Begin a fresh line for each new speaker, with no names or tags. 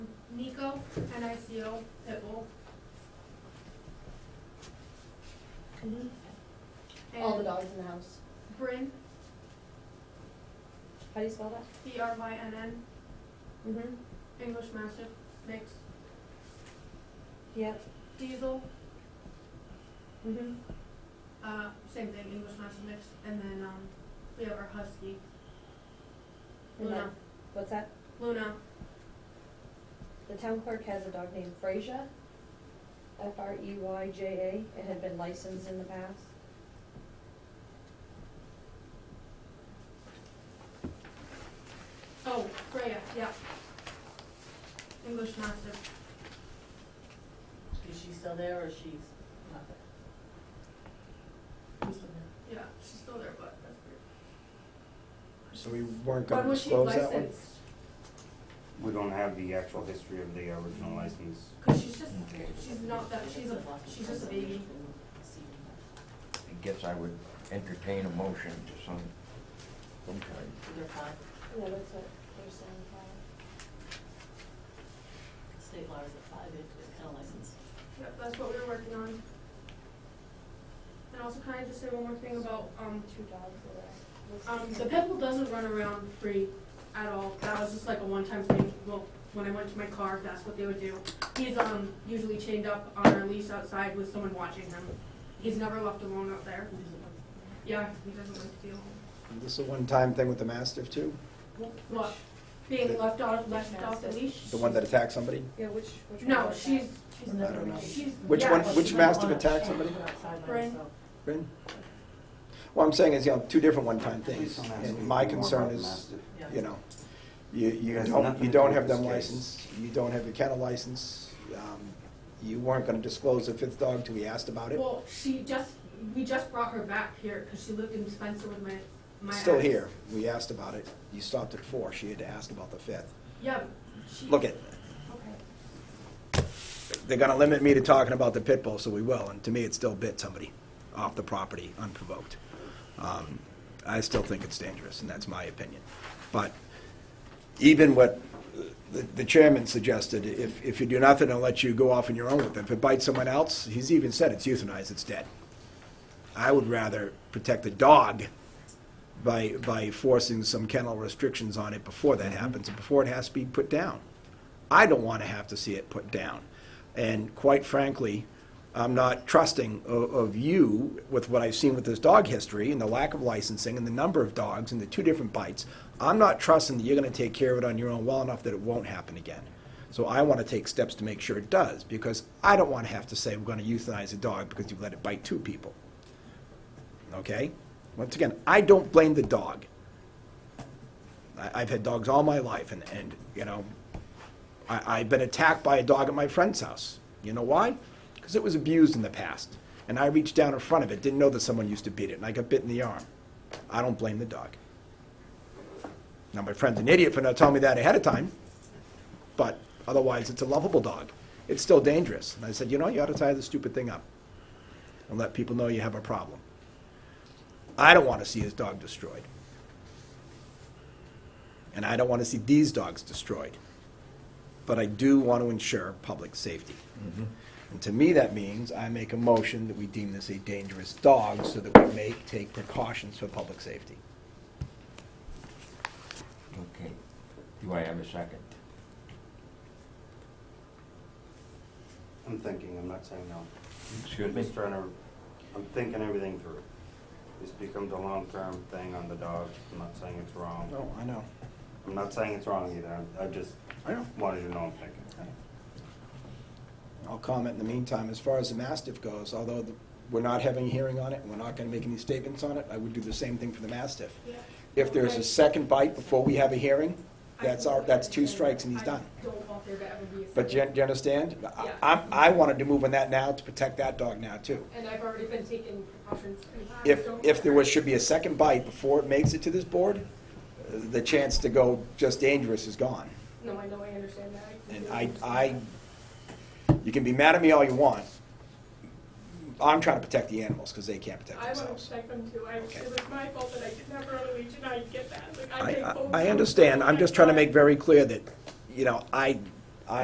Nico, N-I-C-O, Pickle.
Mm-hmm. All the
And
dogs in the house.
Bryn,
How do you spell that?
B-R-Y-N-N,
Mm-hmm.
English Mastiff, mix.
Yep.
Diesel,
Mm-hmm.
uh, same thing, English Mastiff mix, and then, um, we have our Husky, Luna.
What's that?
Luna,
The town clerk has a dog named Freyja, F R E Y J A. It had been licensed in the past.
oh, Freya, yeah. English Mastiff,
Is she still there or she's not there? Who's still there?
yeah, she's still there, but that's weird.
So we weren't
When
gonna
was she
disclose that one?
licensed?
We don't have the actual history of the original license.
Cause she's just, she's not that, she's a, she's just a baby.
I guess I would entertain a motion to some, some kind.
They're fine,
No, that's what they're saying.
state law is a five, it- it's kind of licensed.
Yep, that's what we were working on. And also, can I just say one more thing about, um,
Two dogs are there.
um, the pit bull doesn't run around free at all. That was just like a one-time thing, well, when I went to my car, that's what they would do. He's, um, usually chained up on a leash outside with someone watching him. He's never left alone out there. Yeah, he doesn't like to be alone.
This is a one-time thing with the mastiff too?
What, being
The-
left off, left off the
Mastiff.
leash?
The one that attacked somebody?
Yeah, which, which one?
No,
was that?
she's,
She's
I
never.
don't know.
she's,
Which
yeah,
one-
but
which
she's
She's
not-
mastiff
on a-
attacked
she's
somebody?
on a sideline,
Bryn.
so-
Bryn? Well, I'm saying is, you know, two different one-time
Please
things.
don't ask me
And my
more about
concern
the
is,
mastiff.
Yeah.
you know, you,
It
you
has nothing
don't,
to
you
do
don't
with
have
this
them
case.
licensed, you don't have your kennel license. um, You weren't gonna disclose the fifth dog till we asked about it.
Well, she just, we just brought her back here because she lived in Spencer with my, my.
Still
ex.
here, we asked about it. You stopped at four, she had to ask about the fifth.
Yeah, she.
Look at,
Okay.
they're gonna limit me to talking about the pit bull, so we will, and to me, it still bit somebody off the property unprovoked. Um, I still think it's dangerous, and that's my opinion. But even what the- the chairman suggested, if, if you do nothing, I'll let you go off on your own with it. If it bites someone else, he's even said it's euthanized, it's dead. I would rather protect the dog by, by forcing some kennel restrictions on it before that happens, and before it has to be put down. I don't want to have to see it put down. And quite frankly, I'm not trusting of, of you with what I've seen with this dog history and the lack of licensing and the number of dogs and the two different bites. I'm not trusting that you're going to take care of it on your own well enough that it won't happen again. So I want to take steps to make sure it does because I don't want to have to say we're going to euthanize a dog because you've let it bite two people. Okay? Once again, I don't blame the dog. I, I've had dogs all my life, and, and you know, I, I've been attacked by a dog at my friend's house. You know why? Because it was abused in the past. And I reached down in front of it, didn't know that someone used to beat it, and I got bit in the arm. I don't blame the dog. Now, my friend's an idiot for not telling me that ahead of time, but otherwise, it's a lovable dog. It's still dangerous. And I said, you know, you ought to tie this stupid thing up and let people know you have a problem. I don't want to see his dog destroyed. And I don't want to see these dogs destroyed. But I do want to ensure public safety. And to me, that means I make a motion that we deem this a dangerous dog so that we may take precautions for public safety.
Okay. Do I have a second?
I'm thinking, I'm not saying no.
Excuse me?
Just trying to, I'm thinking everything through. This becomes a long-term thing on the dog. I'm not saying it's wrong.
Oh, I know.
I'm not saying it's wrong either. I I just
I know.
wanted you to know I'm thinking.
I'll comment in the meantime, as far as the mastiff goes, although the- we're not having a hearing on it, and we're not going to make any statements on it, I would do the same thing for the mastiff.
Yeah.
If there's a second bite before we have a hearing,
I
that's
don't
our,
think
that's
that
two
is-
strikes and he's done.
I don't want there to ever be a.
But do you, do
second.
you understand? I-
Yeah.
I, I wanted to move on that now to protect that dog now too.
And I've already been taking precautions. and I
If,
don't-
if there was, should be a second bite before it makes it to this board, uh, the chance to go just dangerous is gone.
No, I know, I understand that.
And
completely
I, I,
understand
you can be mad at me all you want. I'm trying to protect the animals because they can't
that.
protect
I want to
themselves.
protect them too. I,
Okay.
it was my fault that I didn't have early legion. I get that. Like, I
I,
take
I-
both
I
of
understand, I'm just trying to
them.
make very clear that, you know, I